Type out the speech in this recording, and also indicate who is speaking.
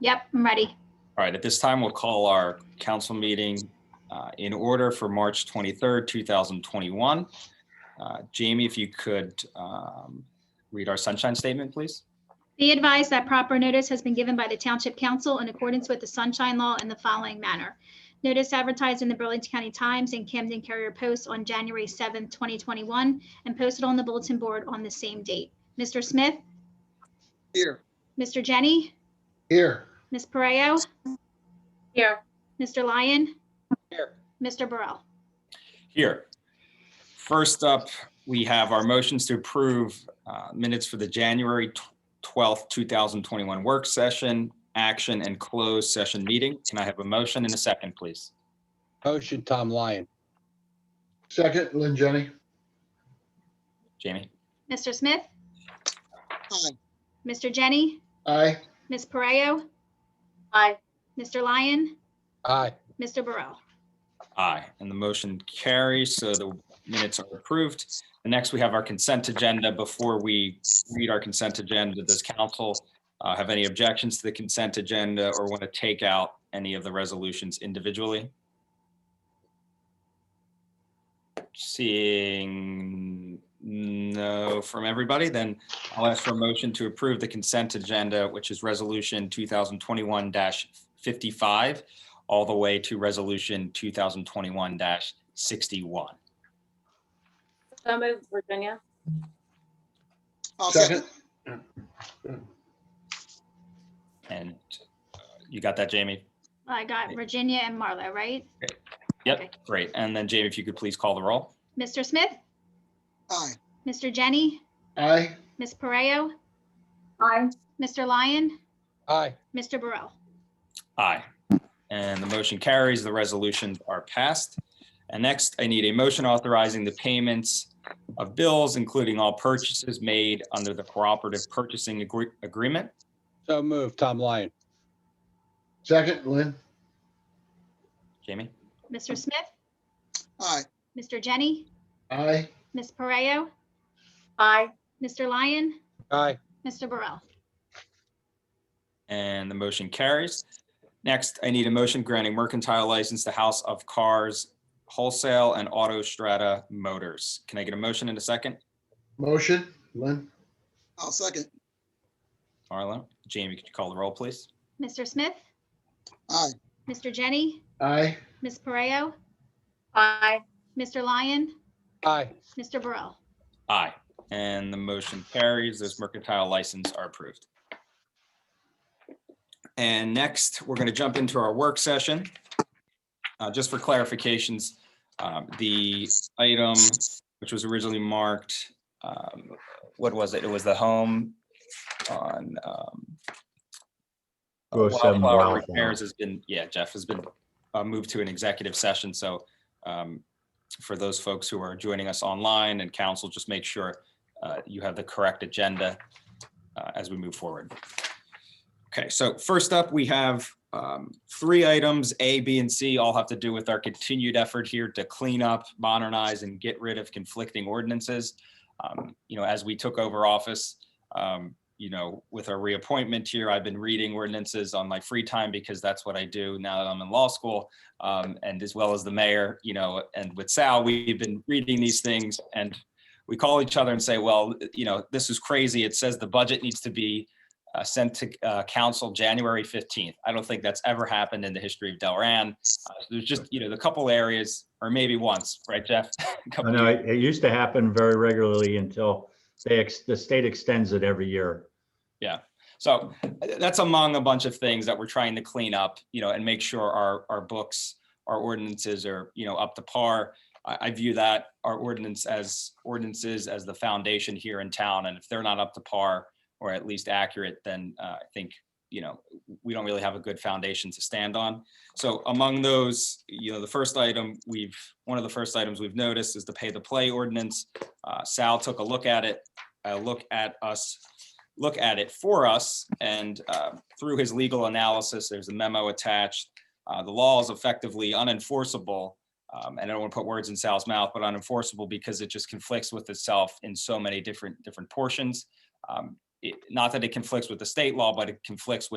Speaker 1: Yep, I'm ready.
Speaker 2: All right, at this time, we'll call our council meeting uh, in order for March 23rd, 2021. Uh, Jamie, if you could um, read our sunshine statement, please.
Speaker 1: Be advised that proper notice has been given by the Township Council in accordance with the Sunshine Law in the following manner. Notice advertised in the Burlington County Times and Camden Carrier Post on January 7th, 2021, and posted on the bulletin board on the same date. Mr. Smith,
Speaker 3: Here.
Speaker 1: Mr. Jenny,
Speaker 3: Here.
Speaker 1: Ms. Pareo,
Speaker 4: Here,
Speaker 1: Mr. Lyon,
Speaker 3: Here.
Speaker 1: Mr. Burrell.
Speaker 2: Here. First up, we have our motions to approve uh, minutes for the January tw- 12th, 2021 work session, action, and closed session meeting. Can I have a motion and a second, please?
Speaker 3: Motion, Tom Lyon. Second, Lynn Jenny.
Speaker 2: Jamie?
Speaker 1: Mr. Smith, Mr. Jenny,
Speaker 3: Aye.
Speaker 1: Ms. Pareo,
Speaker 4: aye,
Speaker 1: Mr. Lyon,
Speaker 3: Aye.
Speaker 1: Mr. Burrell.
Speaker 2: Aye, and the motion carries, so the minutes are approved. The next, we have our consent agenda. Before we read our consent agenda, does council uh, have any objections to the consent agenda or want to take out any of the resolutions individually? Seeing no from everybody, then I'll ask for a motion to approve the consent agenda, which is Resolution 2021-55 all the way to resolution 2021-61.
Speaker 4: so moved, Virginia.
Speaker 3: Second.
Speaker 2: And uh, you got that, Jamie?
Speaker 1: I got Virginia and Marlo, right? Okay.
Speaker 2: Yep, great. And then Jamie, if you could please call the roll.
Speaker 1: Mr. Smith,
Speaker 3: Aye.
Speaker 1: Mr. Jenny,
Speaker 3: Aye.
Speaker 1: Ms. Pareo,
Speaker 4: Aye.
Speaker 1: Mr. Lyon,
Speaker 3: Aye.
Speaker 1: Mr. Burrell.
Speaker 2: Aye. And the motion carries, the resolutions are passed. And next, I need a motion authorizing the payments of bills, including all purchases made under the cooperative purchasing agree- agreement.
Speaker 5: So move, Tom Lyon.
Speaker 3: Second, Lynn.
Speaker 2: Jamie?
Speaker 1: Mr. Smith,
Speaker 3: Aye.
Speaker 1: Mr. Jenny,
Speaker 3: Aye.
Speaker 1: Ms. Pareo,
Speaker 4: Aye,
Speaker 1: Mr. Lyon,
Speaker 5: Aye.
Speaker 1: Mr. Burrell.
Speaker 2: And the motion carries. Next, I need a motion granting mercantile license to House of Cars Wholesale and Auto Strata Motors. Can I get a motion in a second?
Speaker 3: Motion, Lynn.
Speaker 6: I'll second.
Speaker 2: Marlo, Jamie, could you call the roll, please?
Speaker 1: Mr. Smith,
Speaker 6: Aye.
Speaker 1: Mr. Jenny,
Speaker 3: Aye.
Speaker 1: Ms. Pareo,
Speaker 4: aye,
Speaker 1: Mr. Lyon,
Speaker 5: Aye.
Speaker 1: Mr. Burrell.
Speaker 2: Aye. And the motion carries. Those mercantile license are approved. And next, we're going to jump into our work session. Uh, Just for clarifications, um, the item which was originally marked, um, what was it? It was the home on um, Wildflower Repairs has been, yeah, Jeff has been uh, moved to an executive session, so um, for those folks who are joining us online and council, just make sure uh, you have the correct agenda uh, as we move forward. Okay, so first up, we have um, three items, A, B, and C, all have to do with our continued effort here to clean up, modernize, and get rid of conflicting ordinances. Um, You know, as we took over office, um, you know, with our reappointment here, I've been reading ordinances on my free time because that's what I do now that I'm in law school. Um, and as well as the mayor, you know, and with Sal, we've been reading these things and we call each other and say, well, you know, this is crazy. It says the budget needs to be uh, sent to uh, council January 15th. I don't think that's ever happened in the history of Delran. Uh, There's just, you know, the couple areas, or maybe once, right, Jeff? A
Speaker 7: I
Speaker 2: couple
Speaker 7: know, it it used to happen very regularly until they, ex- the state extends it every year.
Speaker 2: So that's among a bunch of things that we're trying to clean up, you know, and make sure our, our books, our ordinances are, you know, up to par. I, I view that, our ordinance as, ordinances as the foundation here in town, and if they're not up to par or at least accurate, then uh, I think, you know, we don't really have a good foundation to stand on. So among those, you know, the first item we've, one of the first items we've noticed is the pay the play ordinance. Uh, Sal took a look at it, a look at us look at it for us. And uh, through his legal analysis, there's a memo attached. Uh, The law is effectively unenforceable. um, And I don't want to put words in Sal's mouth, but unenforceable because it just conflicts with itself in so many different, different portions. Um, it- Not that it conflicts with the state law, but it conflicts with